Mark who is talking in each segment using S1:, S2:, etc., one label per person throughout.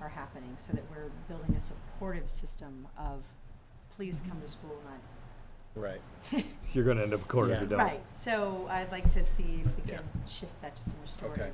S1: are happening so that we're building a supportive system of, please come to school, not
S2: Right.
S3: You're gonna end up a quarter if you
S2: Yeah.
S3: don't.
S1: Right, so I'd like to see if we
S2: Yeah. Uh,
S1: can shift that to some restorative.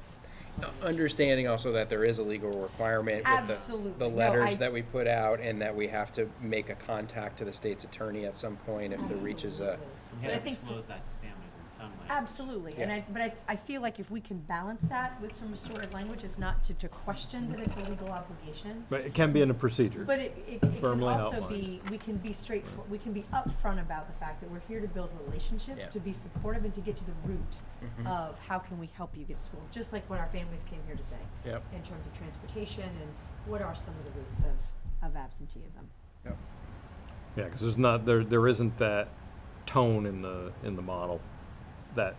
S2: Understanding also that there is a legal requirement with the,
S1: Absolutely.
S2: the
S1: No, I-
S2: letters that we put out and that we have to make a contact to the state's attorney at some point if there reaches uh,
S1: Absolutely.
S2: a,
S4: You
S1: But I
S4: gotta
S1: think,
S4: disclose that to families in some way.
S1: absolutely, and
S2: Yeah.
S1: I, but I, I feel like if we can balance that with some restorative language, it's not to, to question that it's a legal obligation.
S3: But it can be in a procedure.
S1: But it, it, it can
S3: Firmly
S1: also
S3: outlined.
S1: be, we can be straightforward, we can be upfront about the fact that we're here to build relationships,
S2: Yeah.
S1: to be supportive and to get to the root of how can we help you get to school, just like what our families came here to say.
S2: Yep.
S1: In terms of transportation and what are some of the roots of, of absenteeism.
S3: Yeah, because there's not, there, there isn't that tone in the, in the model that,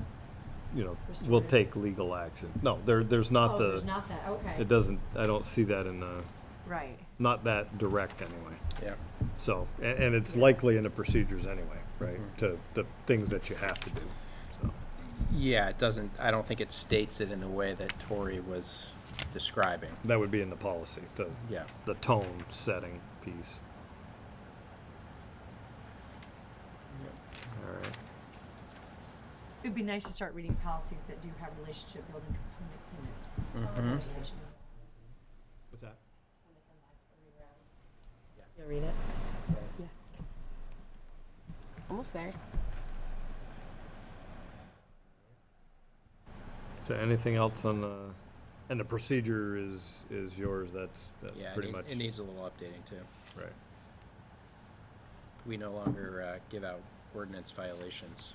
S3: you know, will
S1: Restorative.
S3: take legal action. No, there, there's
S1: Oh,
S3: not
S1: there's
S3: the,
S1: not that, okay,
S3: it doesn't, I don't see that in the,
S1: right,
S3: not that direct anyway.
S2: yeah.
S3: So, a- and it's likely in the procedures anyway, right,
S2: Mhm.
S3: to the things that you have to do, so.
S2: Yeah, it doesn't, I don't think it states it in the way that Tori was describing.
S3: That would be in the policy, the,
S2: Yeah.
S3: the tone setting piece. All right.
S1: it'd be nice to start reading policies that do have relationship building components in it.
S2: Mhm.
S3: What's that?
S5: You'll read it? Yeah. Almost there.
S3: So anything else on the, and the procedure is, is yours, that's, that's
S2: Yeah, it
S3: pretty
S2: needs-
S3: much.
S2: it needs a little updating too.
S3: Right,
S2: We no longer uh, give out ordinance violations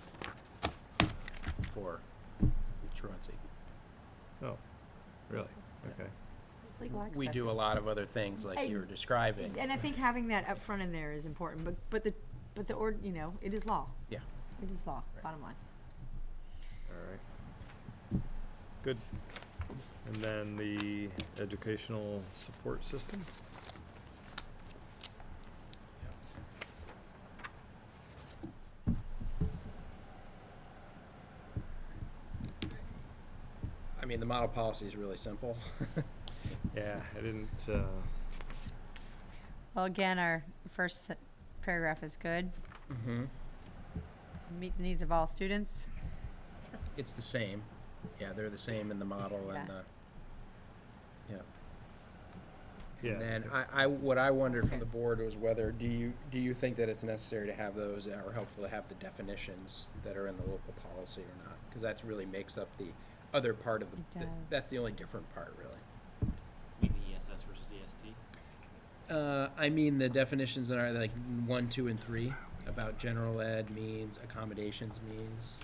S2: for truancy.
S3: oh, really, okay.
S2: We do a lot of other things like you were describing.
S1: And I think having that up front in there is important, but, but the, but the, or, you know, it is law.
S2: Yeah.
S1: It is law,
S2: Right.
S1: bottom line.
S3: All right. Good. And then the educational support system?
S2: I mean, the model policy is really simple.
S3: Yeah, I didn't, uh,
S1: Well, again, our first se- paragraph is good.
S2: Mm-hmm.
S1: Meet the needs of all students.
S2: It's the same. Yeah, they're the same in the model and the, yeah.
S3: yeah.
S2: And then I, I, what I wondered from
S1: Okay.
S2: the board was whether, do you, do you think that it's necessary to have those or helpful to have the definitions that are in the local policy or not? Because that's really makes up the other part of
S1: It
S2: the, the-
S1: does.
S2: that's the only different part, really.
S4: Mean the ESS versus E EST.
S2: Uh, I mean, the definitions in our, like, one, two, and three, about general ed means, accommodations means,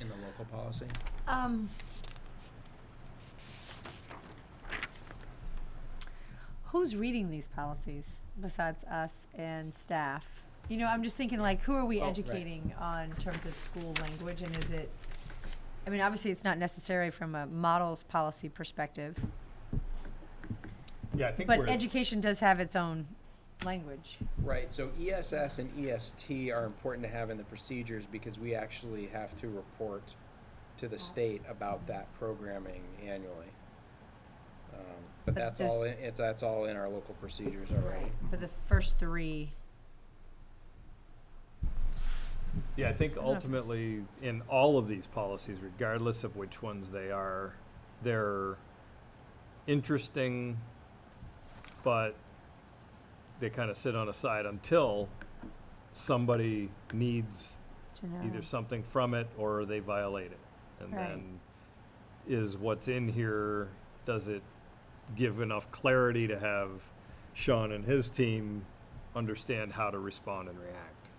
S2: in the local policy.
S1: Um. Who's reading these policies besides us and staff? You know, I'm just thinking like, who are we
S2: Oh, right.
S1: educating on terms of school language and is it? I mean, obviously, it's not necessary from a models policy perspective,
S3: Yeah, I think
S1: but education does have its own language.
S2: Right, so ESS and EST are important to have in the procedures because we actually have to report to the state about that programming annually. Um,
S1: But
S2: But that's all, in- it's, that's all in our local procedures already.
S1: But the first three,
S3: Yeah, I think
S1: don't know.
S3: ultimately, in all of these policies, regardless of which ones they are, they're interesting, but they kind of sit on a side until somebody needs
S1: to know.
S3: either something from it or they violate it. And
S1: Right.
S3: then, is what's in here, does it give enough clarity to have Sean and his team understand how to respond and react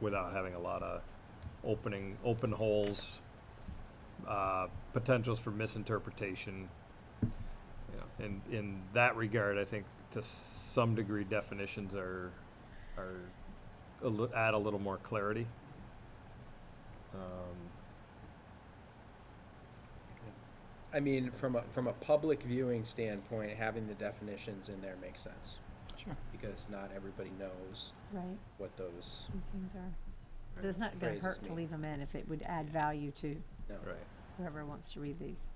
S3: without having a lot of opening, open holes, uh, potentials for misinterpretation? You know, and in that regard, I think to some degree definitions are, are, a li- add a little more clarity. Um,
S2: I mean, from a, from a public viewing standpoint, having the definitions in there makes sense.
S4: Sure.
S2: Because not everybody knows
S1: Right,
S2: what those,
S1: these things are. But it's not gonna
S2: Phrases
S1: hurt to
S2: mean.
S1: leave them in if it would add value to
S2: no.
S3: Right.
S1: whoever wants to read these.